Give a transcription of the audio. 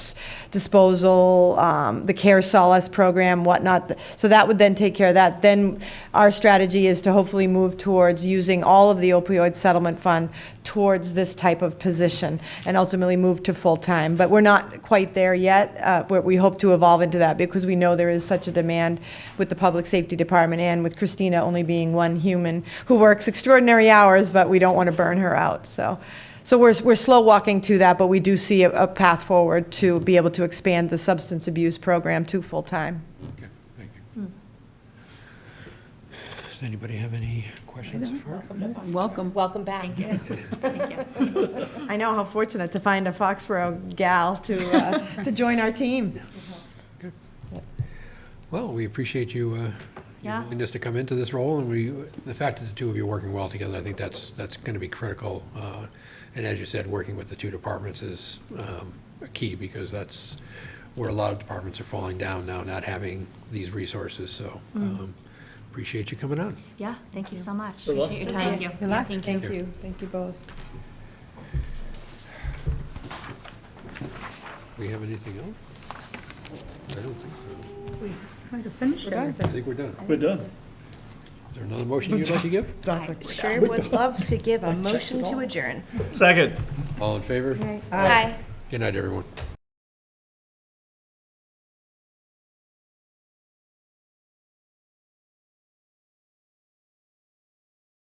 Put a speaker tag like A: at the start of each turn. A: disposal, um, the Care Solace program, whatnot. So that would then take care of that. Then our strategy is to hopefully move towards using all of the opioid settlement fund towards this type of position and ultimately move to full-time. But we're not quite there yet, uh, but we hope to evolve into that because we know there is such a demand with the Public Safety Department and with Christina only being one human who works extraordinary hours, but we don't want to burn her out, so. So we're, we're slow walking to that, but we do see a, a path forward to be able to expand the substance abuse program to full-time.
B: Okay, thank you. Does anybody have any questions for her?
C: Welcome.
D: Welcome back.
A: I know how fortunate to find a Foxborough gal to, uh, to join our team.
B: Well, we appreciate you, uh, your
C: Yeah.
B: willingness to come into this role, and we, the fact that the two of you are working well together, I think that's, that's going to be critical. uh, And as you said, working with the two departments is um, key, because that's where a lot of departments are falling down now, not having these resources, so um, appreciate you coming on.
C: Yeah, thank you so much. Appreciate your time. Thank you.
A: Good luck.
C: Thank
A: Thank
C: you.
A: you, thank you both.
B: We have anything else? I don't think so.
E: Trying to finish
A: done.
E: it.
B: I think we're done.
F: We're done.
B: Is there another motion you'd like to give?
D: I sure would love to give a motion to adjourn.
F: Second.
B: All in favor?
A: Right.
D: Aye.
B: Good night, everyone.